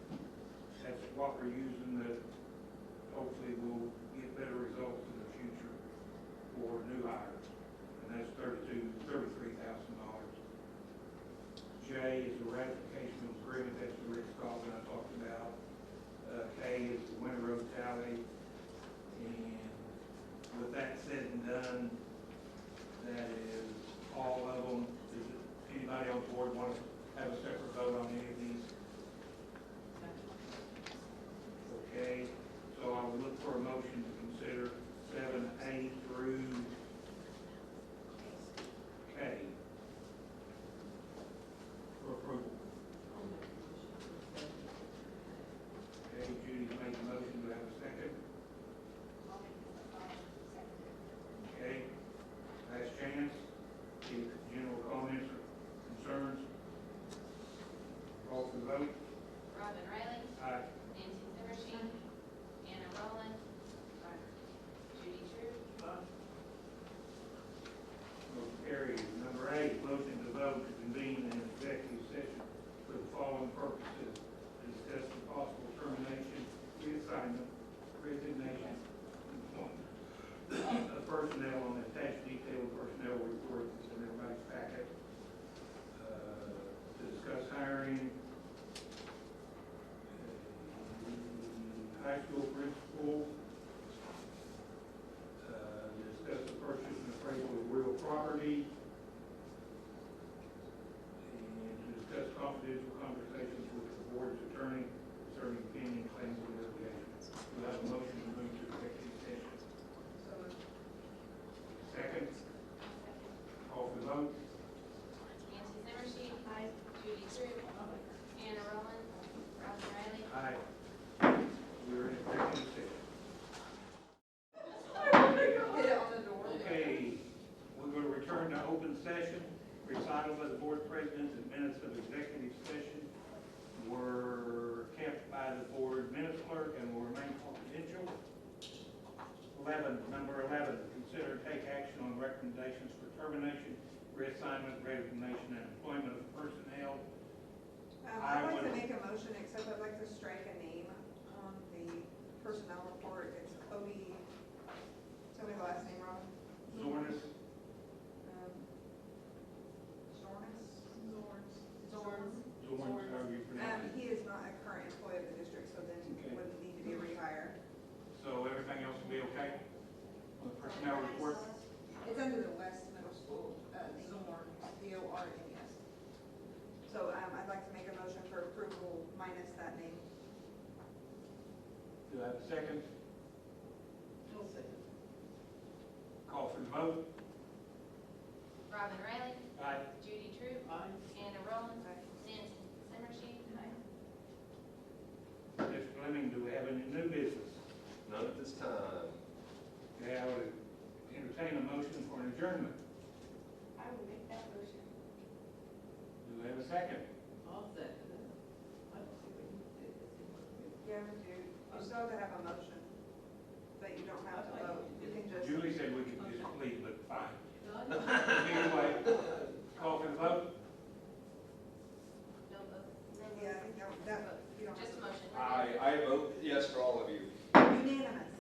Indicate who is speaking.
Speaker 1: what we're using that hopefully will get better results in the future for new hires. And that's thirty-two, thirty-three thousand dollars. J is the ratification of agreement, that's the Rick Scott that I talked about. Uh, K is the winter road tally. And with that said and done, that is all of them. Does anybody on board want to have a separate vote on any of these? Okay, so I would look for a motion to consider seven A through K for approval. Okay, Judy made the motion, do I have a second? Okay, last chance, any general comments or concerns? Call for the vote,
Speaker 2: Robin Riley,
Speaker 1: aye.
Speaker 2: Nancy Zimmerstein, Anna Roland, Judy Truitt,
Speaker 1: Motion carries. Number eight, motion to vote to convene an executive session for the following purposes. to Discuss the possible termination, reassignment, resignation, employment of personnel on attached detailed personnel report that's in everybody's packet. Uh, To discuss hiring uh, high school principal, uh, discuss the purchase and appraisal of real property, and to discuss confidential conversations with the board's attorney concerning pending claims and litigation. Do I have a motion to move to executive session? Second, call for the vote.
Speaker 2: Nancy Zimmerstein, Judy Truitt, Anna Roland, Robin Riley,
Speaker 1: Aye. We are in executive session. Okay, we're going to return to open session. Recital by the board presidents and minutes of executive session were kept by the board minutes clerk and will remain confidential. Eleven, number eleven, consider and take action on recommendations for termination, reassignment, resignation, and employment of personnel.
Speaker 3: Um,
Speaker 1: I
Speaker 3: I'd like
Speaker 1: would-
Speaker 3: to make a motion, except I'd like to strike a name on the personnel report. It's Cody, tell me the last name wrong.
Speaker 1: Zornis,
Speaker 3: Um, Zornis? Zorns.
Speaker 1: Zornis, however you pronounce
Speaker 3: Um,
Speaker 1: it.
Speaker 3: he is not a current employee of the district, so then
Speaker 1: Okay.
Speaker 3: he wouldn't need to be rehired.
Speaker 1: So everything else will be okay? On the personnel report?
Speaker 3: It's under the West Middle School, uh, Zorns, D O R N E S. So, um, I'd like to make a motion for approval minus that name.
Speaker 1: Do I have a second? Call for the vote.
Speaker 2: Robin Riley,
Speaker 1: Aye.
Speaker 2: Judy Truitt, Anna Roland, Nancy Zimmerstein,
Speaker 1: Mr. Fleming, do we have any new business?
Speaker 4: None at this time.
Speaker 1: Okay, I would entertain a motion for an adjournment.
Speaker 5: I will make that motion.
Speaker 1: Do we have a second?
Speaker 5: I'll second it. I don't see what you did.
Speaker 3: Yeah, we do. You still have to have a motion.